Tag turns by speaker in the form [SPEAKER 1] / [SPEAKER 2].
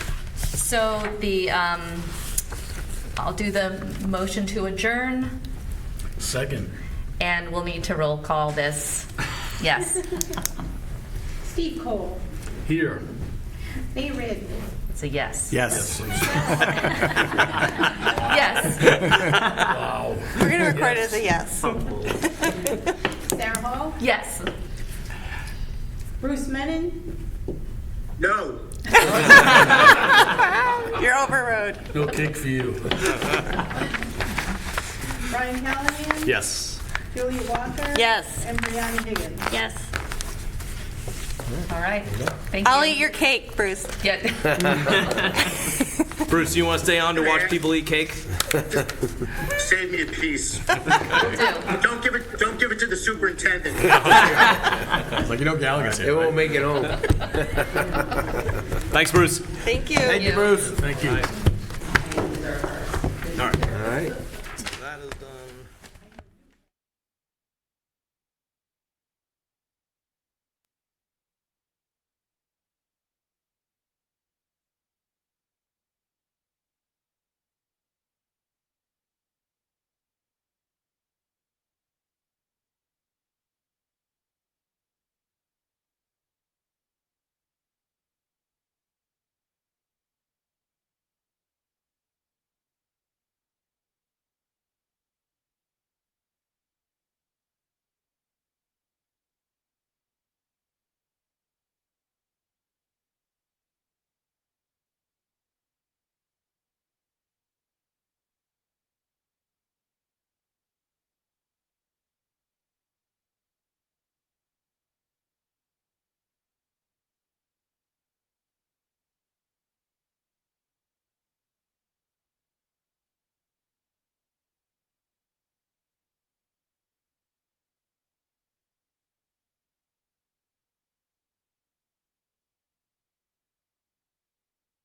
[SPEAKER 1] So the, um, I'll do the motion to adjourn,
[SPEAKER 2] Second.
[SPEAKER 1] and we'll need to roll call this. Yes,
[SPEAKER 3] Steve Cole,
[SPEAKER 2] Here.
[SPEAKER 3] May Ridley,
[SPEAKER 1] it's a yes.
[SPEAKER 4] Yes.
[SPEAKER 1] Yes.
[SPEAKER 2] Wow.
[SPEAKER 5] We're going to record it as a yes.
[SPEAKER 3] Sarah Hall,
[SPEAKER 1] Yes.
[SPEAKER 3] Bruce Menon,
[SPEAKER 6] No.
[SPEAKER 5] You're overrode.
[SPEAKER 2] No cake for you.
[SPEAKER 3] Brian Callahan,
[SPEAKER 4] Yes.
[SPEAKER 3] Julia Walker,
[SPEAKER 5] Yes.
[SPEAKER 3] and Brianna Higgins.
[SPEAKER 5] Yes.
[SPEAKER 1] All right. Thank
[SPEAKER 5] I'll
[SPEAKER 1] you.
[SPEAKER 5] eat your cake, Bruce.
[SPEAKER 1] Yeah.
[SPEAKER 7] Bruce, you want to stay on to watch people eat cake?
[SPEAKER 6] Save me a piece.
[SPEAKER 1] will do.
[SPEAKER 6] Don't give it. Don't give it to the superintendent.
[SPEAKER 4] It's like, you know Gallagher's here.
[SPEAKER 7] It won't make it home. Thanks, Bruce.
[SPEAKER 5] Thank you.
[SPEAKER 1] you.
[SPEAKER 4] Bruce.
[SPEAKER 2] Thank you.
[SPEAKER 4] All right.
[SPEAKER 7] All right.